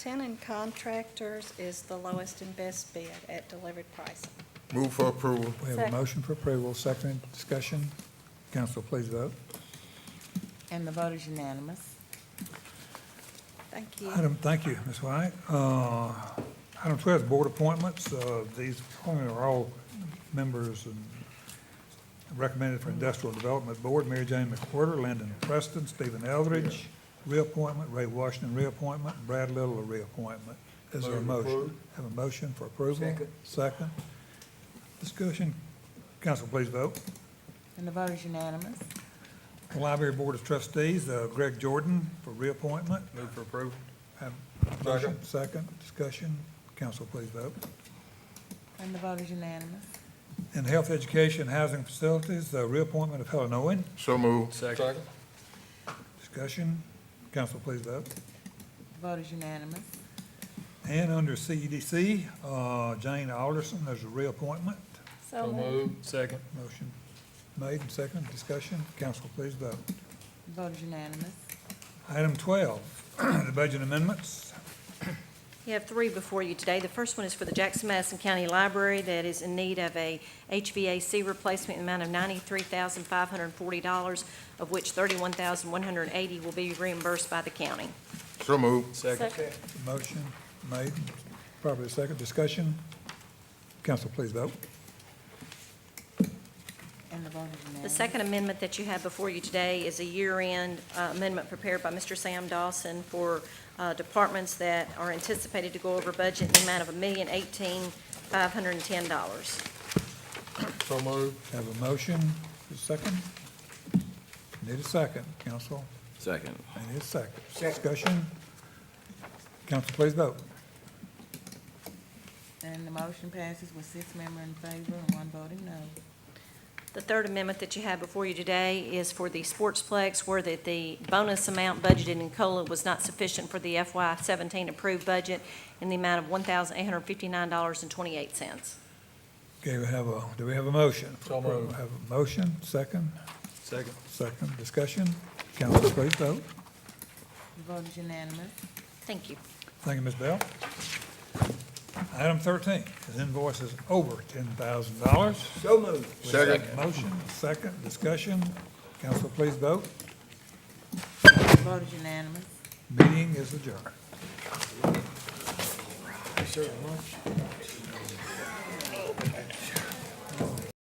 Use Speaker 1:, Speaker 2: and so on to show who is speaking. Speaker 1: Tenon Contractors is the lowest and best bid at delivered price.
Speaker 2: Move for approval.
Speaker 3: We have a
Speaker 1: Second.
Speaker 3: motion for approval, second discussion. Council, please vote.
Speaker 4: And the vote is unanimous.
Speaker 1: Thank you.
Speaker 3: Item, thank you, Ms. White. Uh, Item 12 is board appointments. Uh, These appointments are all members and recommended for Industrial Development Board, Mary Jane McWhorter, Lyndon Preston, Stephen Eldridge, reappointment, Ray Washington, reappointment, Brad Little, a reappointment. Is there a
Speaker 2: Move to
Speaker 3: motion?
Speaker 2: approve.
Speaker 3: Have a motion for approval?
Speaker 2: Second.
Speaker 3: Second. Discussion. Council, please vote.
Speaker 4: And the vote is unanimous.
Speaker 3: The Library Board of Trustees, uh, Greg Jordan for reappointment.
Speaker 2: Move for approval.
Speaker 3: Have a motion, second, discussion. Council, please vote.
Speaker 4: And the vote is unanimous.
Speaker 3: In Health Education Housing Facilities, uh, reappointment of Helen Owen.
Speaker 2: So move. Second.
Speaker 3: Discussion. Council, please vote.
Speaker 4: The vote is unanimous.
Speaker 3: And under CEDC, uh, Jane Alderson, there's a reappointment.
Speaker 1: So moved.
Speaker 2: Second.
Speaker 3: Motion made and second, discussion. Council, please vote.
Speaker 4: The vote is unanimous.
Speaker 3: Item 12, the budget amendments.
Speaker 5: You have three before you today. The first one is for the Jackson Madison County Library that is in need of a HVAC replacement in the amount of ninety-three thousand five hundred and forty dollars, of which thirty-one thousand one hundred and eighty will be reimbursed by the county.
Speaker 2: So move. Second.
Speaker 1: Second.
Speaker 3: Motion made, probably second, discussion. Council, please vote.
Speaker 4: And the vote is unanimous.
Speaker 5: The second amendment that you have before you today is a year-end uh, amendment prepared by Mr. Sam Dawson for uh, departments that are anticipated to go over budget in the amount of a million eighteen five hundred and ten dollars.
Speaker 2: So move.
Speaker 3: Have a motion, a second? Need a second, council?
Speaker 6: Second.
Speaker 3: Need a second. Discussion? Council, please vote.
Speaker 4: And the motion passes with six members in favor and one voting no.
Speaker 5: The third amendment that you have before you today is for the Sportsplex, where that the bonus amount budgeted in COLA was not sufficient for the FY seventeen approved budget in the amount of one thousand eight hundred fifty-nine dollars and twenty-eight cents.
Speaker 3: Okay, we have a, do we have a motion?
Speaker 2: So moved.
Speaker 3: Have a motion, second,
Speaker 2: Second.
Speaker 3: second, discussion? Council, please vote.
Speaker 4: The vote is unanimous.
Speaker 5: Thank you.
Speaker 3: Thank you, Ms. Bell. Item thirteen is invoices over ten thousand dollars.
Speaker 2: So move. Second.
Speaker 3: Motion, second, discussion? Council, please vote.
Speaker 4: The vote is unanimous.
Speaker 3: Meeting is adjourned.